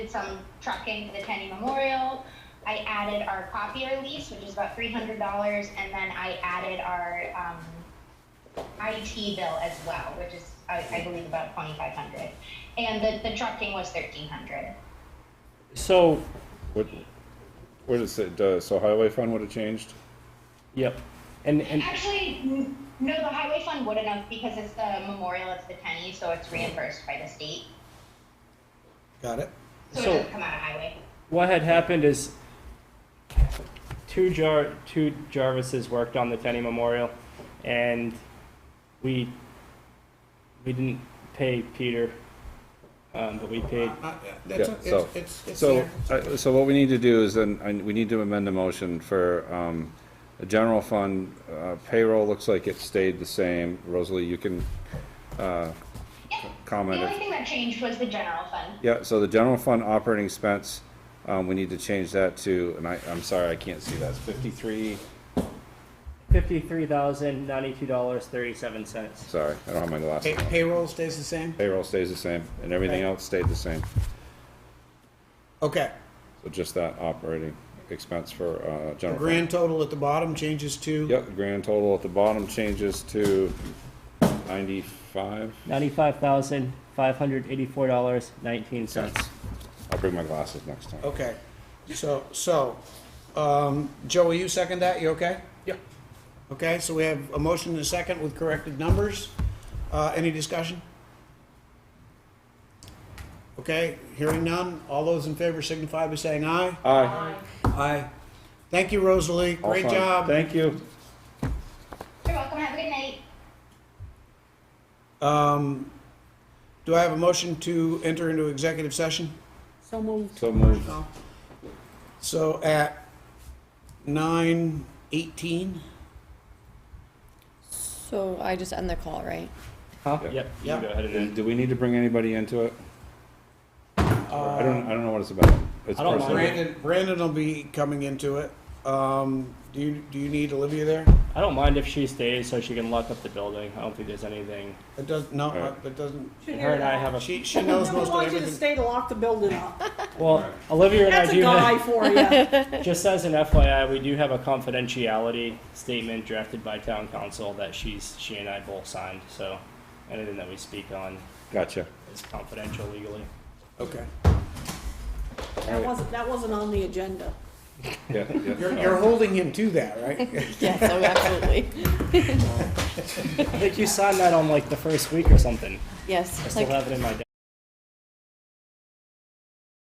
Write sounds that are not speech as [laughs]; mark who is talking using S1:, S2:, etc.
S1: did some trucking to the Tenney Memorial. I added our copier lease, which is about three hundred dollars, and then I added our, um, IT bill as well, which is, I, I believe about twenty-five hundred. And the, the trucking was thirteen hundred.
S2: So,
S3: What, what is it, uh, so highway fund would have changed?
S2: yep, and, and,
S1: Actually, n- no, the highway fund wouldn't have, because it's the memorial, it's the Tenney, so it's reimbursed by the state.
S4: Got it?
S1: So it
S2: So-
S1: doesn't come out of highway.
S2: what had happened is two Jar two Jarvises worked on the Tenney Memorial, and we we didn't pay Peter, um, but we paid.
S4: Uh, yeah, That's,
S3: Yeah,
S4: it's,
S3: so-
S4: it's, it's
S3: So,
S4: there.
S3: I- so what we need to do is then, I- we need to amend the motion for, um, the general fund, uh, payroll looks like it stayed the same. Rosalie, you can, uh,
S1: Yeah. The
S3: comment
S1: only
S3: if,
S1: thing that changed was the general fund.
S3: yeah, so the general fund operating expense, um, we need to change that to, and I, I'm sorry, I can't see that, it's fifty-three,
S2: Fifty-three thousand ninety-two dollars thirty-seven cents.
S3: sorry, I don't have my
S4: Pay-
S3: glasses on.
S4: Payroll stays the same?
S3: Payroll stays the same, and everything
S4: Okay.
S3: else stayed the same.
S4: Okay.
S3: So just that operating expense for, uh,
S4: The
S3: general fund.
S4: grand total at the bottom changes to?
S3: Yep, the grand total at the bottom changes to ninety-five.
S2: Ninety-five thousand five hundred eighty-four dollars nineteen cents.
S3: I'll bring my glasses next time.
S4: Okay. So, so, um, Joe, will you second that? You okay?
S2: Yep.
S4: Okay, so we have a motion and a second with corrected numbers. Uh, any discussion? Okay, hearing none. All those in favor signify by saying aye.
S3: Aye.
S4: Aye. Thank you, Rosalie.
S3: All
S4: Great
S3: fine.
S4: job.
S3: Thank you.
S1: You're welcome, have a good night.
S4: Um, do I have a motion to enter into executive session?
S5: So moved.
S3: So moved.
S4: So at nine eighteen?
S5: So I just end the call, right?
S2: Huh?
S3: Yeah.
S2: Yep. you
S4: Yeah.
S2: can Go ahead and end.
S3: And Do we need to bring anybody into it? I don't, I don't know what it's about. It's
S2: Uh, I don't
S3: personal.
S2: mind.
S4: Brandon, Brandon will be coming into it. Um, do you, do you need Olivia there?
S2: I don't mind if she stays so she can lock up the building. I don't think there's anything.
S4: It does, no,
S3: Alright.
S4: uh, it doesn't,
S2: Her and [laughs] I have a
S4: she, she knows most of
S6: want you to
S4: everything.
S6: stay to lock the building up.
S2: well. Olivia and I
S6: That's a
S2: do. have-
S6: guy for
S2: [laughs]
S6: you.
S2: Just as an FYI, we do have a confidentiality statement drafted by town council that she's, she and I both signed, so anything that we speak on
S3: Gotcha.
S2: is confidential legally.
S4: Okay.
S6: That wasn't, that wasn't on the agenda.
S3: Yeah, yeah.
S4: You're, you're holding him to that,
S2: [laughs]
S4: right?
S5: Yes, oh, absolutely.
S2: I think you signed that on like the first week or something.
S5: Yes.
S2: I still
S5: like-
S2: have it in my desk.